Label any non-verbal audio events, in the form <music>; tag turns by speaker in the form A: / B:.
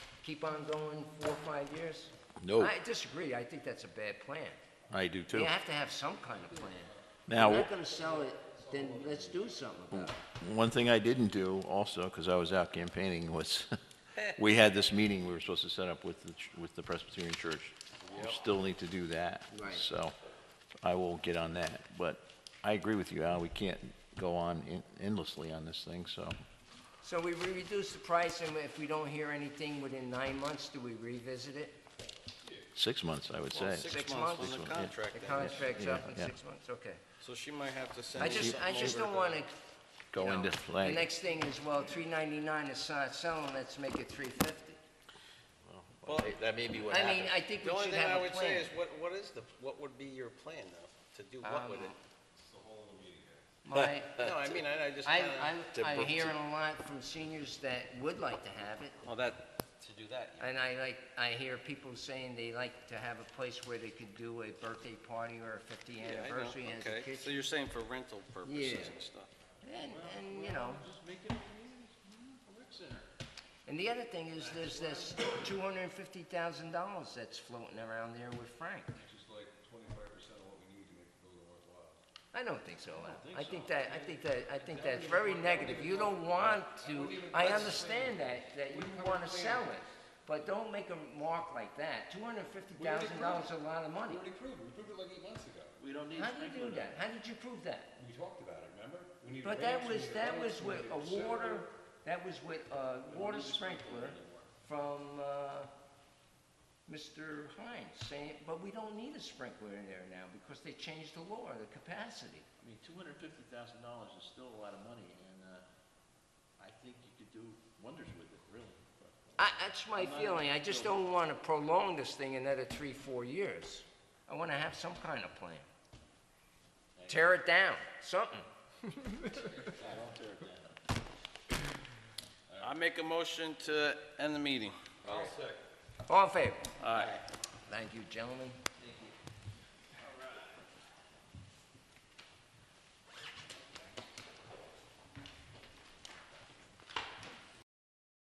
A: keep on going four, or five years?
B: No.
A: I disagree. I think that's a bad plan.
B: I do too.
A: You have to have some kind of plan. If
B: Now,
A: you're not gonna sell it, then let's do something about it.
B: One thing I didn't do also, because I was out campaigning, was <laughs> we had this meeting we were supposed to set up with the, ch- with the Presbyterian Church. We still need to do that.
A: Right.
B: So I will get on that. But I agree with you, Al, we can't go on en- endlessly on this thing, so.
A: So we re- reduce the price, and if we don't hear anything within nine months, do we revisit it?
B: Six months, I would say.
A: six
C: Six
A: months
C: months
A: is
C: on the
B: what- yeah.
C: contract
A: The
C: then.
A: contract's
B: Yeah,
A: up in
B: yeah.
A: six months, okay.
C: So she might have to send.
A: I just, I just don't wanna, you
B: Go
A: know,
B: into
A: the
B: play.
A: next thing is, well, three ninety-nine is not selling, let's make it three fifty.
C: Well,
B: That may be what
A: I mean, I think
C: the
A: we
C: only
A: should
C: thing I
A: have a
C: would say
A: plan.
C: is, what, what is the, what would be your plan though? To do what with it?
A: My,
C: <laughs> No, I mean, I, I just
A: I,
C: kinda.
A: I'm, I'm hearing a lot from seniors that would like to have it,
C: Well, that, to do that,
A: and I like, I hear people saying they like to have a place where they could do a birthday party or a fifty
C: yeah, I
A: anniversary
C: know,
A: and a
C: okay.
A: kitchen.
C: So you're saying for rental purposes
A: Yeah.
C: and stuff?
A: And, and, you know. And the other thing is, there's this two hundred and fifty thousand dollars that's floating around there with Frank.
D: Which is like twenty-five percent of what we need to make the building worthwhile.
A: I don't think so. I think that, I think that, I think that's very negative. You don't want to, I understand that, that you wanna sell it, but don't make a mark like that. Two hundred and fifty thousand dollars is a lot of money.
D: We already proved, it. we proved it like eight months ago. We
A: How do you do that? How did you prove that?
D: talked about it, remember? We need a
A: But that
D: ranch, we
A: was,
D: need a
A: that
D: fence,
A: was
D: we
A: with
D: need
A: a
D: separate-
A: water, that was with a water sprinkler from, uh, Mr. Hines saying, but we don't need a sprinkler in there now because they changed the law, the capacity.
E: I mean, two hundred fifty thousand dollars is still a lot of money, and, uh, I think you could do wonders with it, really. but-
A: I, that's my feeling. I just don't wanna prolong this thing another three, four years. I wanna have some kind of plan. Tear it down, something.
C: I make a motion to end the meeting.
A: All in favor?
C: All right.
A: Thank you, gentlemen.